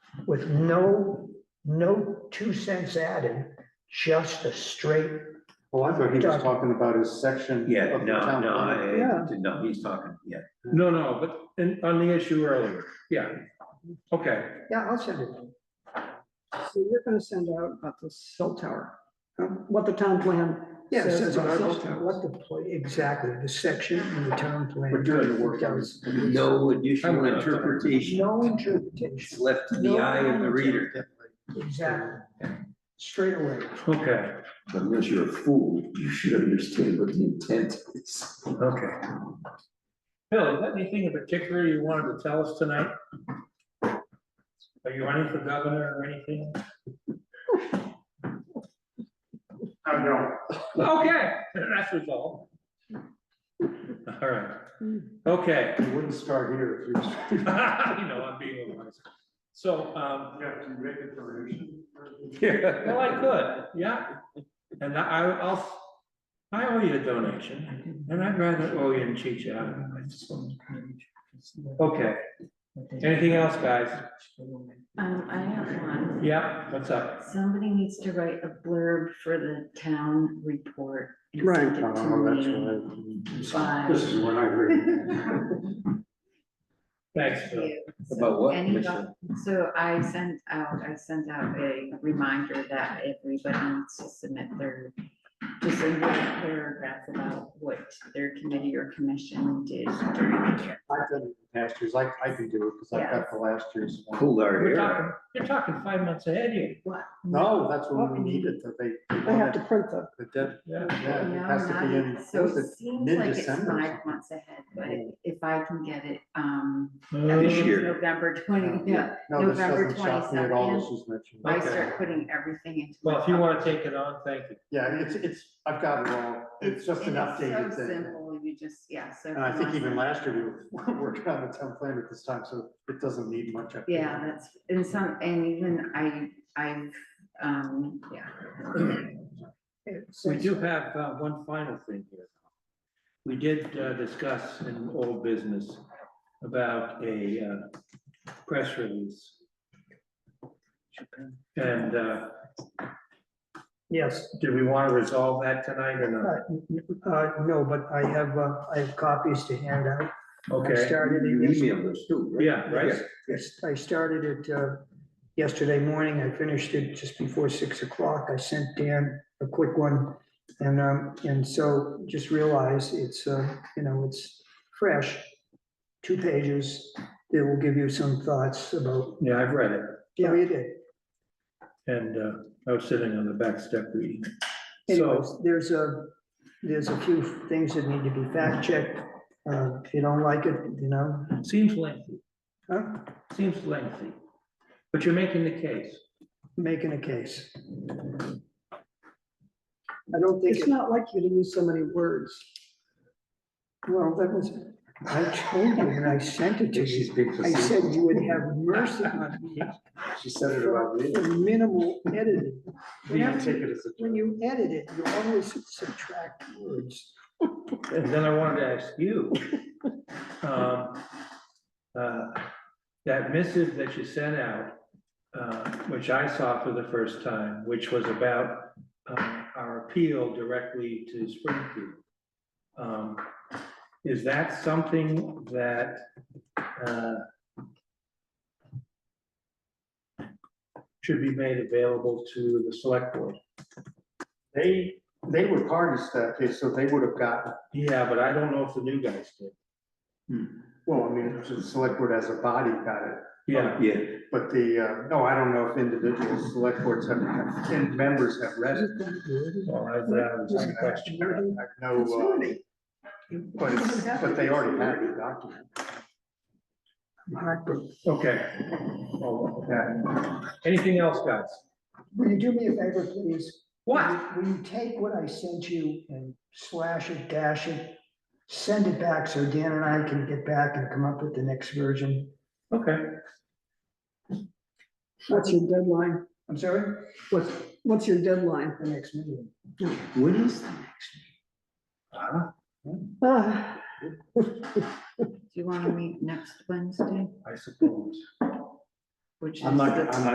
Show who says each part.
Speaker 1: with no, no two cents added, just a straight,
Speaker 2: Well, Oh, I thought he was talking about his section.
Speaker 3: Yeah,
Speaker 2: of the
Speaker 3: no,
Speaker 2: town
Speaker 3: no,
Speaker 2: plan.
Speaker 3: I, no, he's talking, yeah.
Speaker 4: No, no, but in, on the issue earlier, yeah, okay.
Speaker 1: yeah, I'll send it.
Speaker 5: So you're gonna send out about the cell tower, uh, what the town plan
Speaker 1: Yeah, it
Speaker 5: says
Speaker 1: says
Speaker 5: about cell
Speaker 1: what
Speaker 5: towers.
Speaker 1: the, pla- exactly, the section in the town plan.
Speaker 2: We're doing the work hours.
Speaker 3: No additional
Speaker 4: I'm not-
Speaker 3: interpretation,
Speaker 1: No interpretation,
Speaker 3: it's left to the eye of the reader.
Speaker 1: exactly, straight away.
Speaker 4: Okay,
Speaker 6: Unless you're a fool, you should understand what the intent is.
Speaker 4: okay. Bill, is there anything in particular you wanted to tell us tonight? Are you running for governor or anything?
Speaker 2: I know.
Speaker 4: Okay, that's resolved. All right, okay.
Speaker 2: It wouldn't start here if you was.
Speaker 4: You know, I'm being wise. So, um,
Speaker 2: Yeah, to make a donation.
Speaker 4: well, I could, yeah. And I, I'll, I owe you a donation, and I'd rather owe you and cheat you out. of it. I just want- Okay, anything else, guys?
Speaker 7: Um, I have one.
Speaker 4: Yeah, what's up?
Speaker 7: Somebody needs to write a blurb for the town report. and
Speaker 5: Right.
Speaker 7: send
Speaker 2: I don't
Speaker 7: it to
Speaker 2: know, Oh, that's
Speaker 7: me.
Speaker 2: what I- This is when I heard.
Speaker 4: Thanks, Phil.
Speaker 7: Thank you. So
Speaker 3: About what,
Speaker 7: anybody-
Speaker 3: Michelle?
Speaker 7: So I sent out, I sent out a reminder that everybody needs to submit their, just a little paragraph about what their committee or commission did during the year.
Speaker 2: I've done it in past years, I, I can do it, because I've got the last year's one.
Speaker 3: Pulled our
Speaker 4: We're
Speaker 3: hair out.
Speaker 4: talking, you're talking five months ahead here.
Speaker 2: No, that's when we need it, that they.
Speaker 5: They have to print the,
Speaker 2: The dead,
Speaker 4: Yeah.
Speaker 2: yeah, it
Speaker 7: No,
Speaker 2: has to be
Speaker 7: not-
Speaker 2: in,
Speaker 7: So
Speaker 2: was
Speaker 7: it
Speaker 2: it
Speaker 7: seems like it's
Speaker 2: mid-December or
Speaker 7: five
Speaker 2: something?
Speaker 7: months ahead, but if I can get it, um,
Speaker 3: This
Speaker 2: Uh,
Speaker 3: year.
Speaker 7: November twenty, yeah,
Speaker 2: Oh, No, this
Speaker 7: November
Speaker 2: doesn't shock me at all, this
Speaker 7: 22nd.
Speaker 2: is mentioned.
Speaker 7: I
Speaker 4: Okay.
Speaker 7: start putting everything into. my
Speaker 4: Well, if you want
Speaker 7: pocket.
Speaker 4: to take it on, thank you.
Speaker 2: Yeah, it's, it's, I've got it all, it's just an
Speaker 7: and it's
Speaker 2: updated
Speaker 7: So
Speaker 2: thing.
Speaker 7: simple, you just, yeah, so.
Speaker 2: And I
Speaker 7: if
Speaker 2: think
Speaker 7: you
Speaker 2: even
Speaker 7: want-
Speaker 2: last year, we were working on the town plan at this time, so it doesn't need much. updating.
Speaker 7: Yeah, that's, and some, and even I, I, um, yeah.
Speaker 4: We do have uh, one final thing here. We did uh, discuss in old business about a uh, press release. And uh,
Speaker 1: Yes.
Speaker 4: do we want to resolve that tonight or not?
Speaker 1: Uh, no, but I have, uh, I have copies to hand out. I
Speaker 4: Okay,
Speaker 1: started
Speaker 3: You
Speaker 1: it yesterday.
Speaker 3: emailed us too, right?
Speaker 4: yeah, right?
Speaker 1: Yes, I started it uh, yesterday morning. I finished it just before six o'clock. I sent Dan a quick one. And, um, and so just realize it's, uh, you know, it's fresh, two pages. It will give you some thoughts about,
Speaker 4: Yeah, I've read it
Speaker 1: yeah, you did.
Speaker 4: and uh, I was sitting on the back step reading. So,
Speaker 1: Anyways, there's a, there's a few things that need to be fact checked. Uh, If you don't like it, you know,
Speaker 4: seems lengthy,
Speaker 1: huh,
Speaker 4: seems lengthy, but you're making the case.
Speaker 1: making a case. I don't think.
Speaker 5: it's not like you to use so many words.
Speaker 1: Well, that was, I told you when I sent it to
Speaker 2: She's
Speaker 1: you,
Speaker 2: being
Speaker 1: I
Speaker 2: facetious.
Speaker 1: said you would have mercy on me
Speaker 2: She said it about me.
Speaker 1: for minimal editing.
Speaker 2: You can take it as a-
Speaker 1: When you edit it, you always subtract words.
Speaker 4: And then I wanted to ask you. um, uh, That missive that you sent out, uh, which I saw for the first time, which was about um, our appeal directly to Springfield. um, Is that something that uh, should be made available to the select board?
Speaker 2: They, they were parties that day, so they would have gotten,
Speaker 4: Yeah, but I don't know if the new guys did.
Speaker 2: well, I mean, the select board as a body got it.
Speaker 4: Yeah,
Speaker 3: Yeah,
Speaker 2: But the, uh, no, I don't know if individual select boards have, and members have read it.
Speaker 4: well, I- that was my uh, question.
Speaker 2: No, uh, but, it's- but they already had the document.
Speaker 4: Okay. Oh, okay. Anything else, guys?
Speaker 1: Will you do me a favor, please?
Speaker 4: What?
Speaker 1: Will you take what I sent you and slash it, dash it, send it back so Dan and I can get back and come up with the next version?
Speaker 4: Okay,
Speaker 5: What's your deadline?
Speaker 1: I'm sorry,
Speaker 5: What's, what's your deadline?
Speaker 1: the next meeting.
Speaker 3: what is,
Speaker 4: Uh-huh.
Speaker 5: Ah.
Speaker 7: Do you want to meet next Wednesday?
Speaker 4: I suppose.
Speaker 8: which is.
Speaker 4: I'm not,
Speaker 8: the-
Speaker 4: I'm not